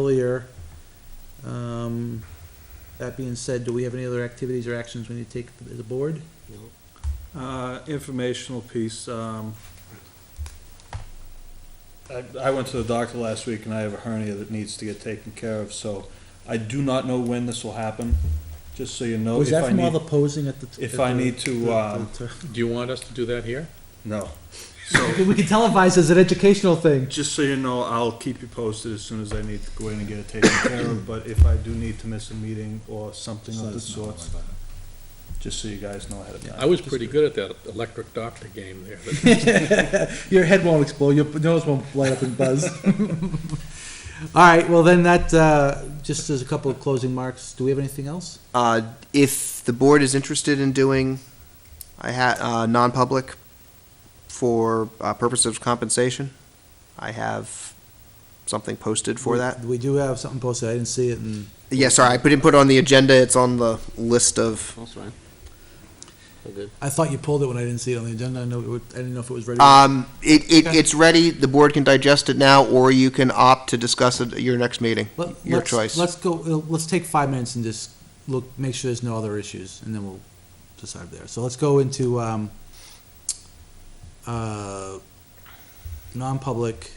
earlier. Um, That being said, do we have any other activities or actions we need to take as a board? Uh, informational piece, um, I, I went to the doctor last week and I have a hernia that needs to get taken care of, so I do not know when this will happen, just so you know. Was if that I from all the need- posing at the? if at I the- need to, the- um, the- Do you want us to do that here? No. We can televise as an educational thing. Just so you know, I'll keep you posted as soon as I need to go in and get it taken care of, but if I do need to miss a meeting or something of the sorts, just so you guys know ahead of I time. was pretty good at that electric doctor game there. but- Your head won't explode, your nose won't light up and buzz. All right, well then that, uh, just as a couple of closing marks, do we have anything else? Uh, if the board is interested in doing, I had, uh, non-public for, uh, purposes of compensation, I have something posted for that. We do have something posted, I didn't see it and. Yeah, sorry, I didn't put it on the agenda, it's on the list of, That's fine. We're good. I thought you pulled it when I didn't see it on the agenda. I know, it would- I didn't know if it was ready. um, it, it, Okay. it's ready, the board can digest it now, or you can opt to discuss it at your next meeting, Let- your let's- choice. Let's go, uh, let's take five minutes and just look, make sure there's no other issues, and then we'll decide there. So let's go into, um, uh, non-public,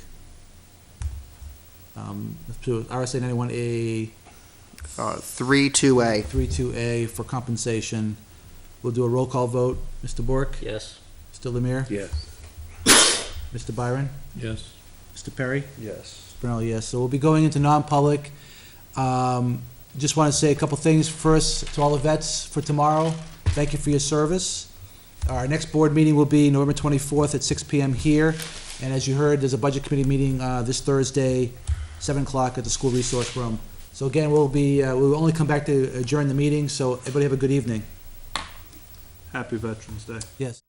um, let's do RSA ninety-one A Uh, three, two A, three two A for compensation. We'll do a roll call vote. Mr. Bork? Yes. Mr. Lemire? Yes. Mr. Byron? Yes. Mr. Perry? Yes. Brunel, yes. So we'll be going into non-public. Um, Just want to say a couple things. First, to all the vets for tomorrow, thank you for your service. Our next board meeting will be November 24th at 6 PM here. And as you heard, there's a budget committee meeting uh, this Thursday, 7 o'clock at the school resource room. So again, we'll be, uh, we'll only come back to adjourn the meeting, so everybody have a good evening. Happy Veterans Day. Yes.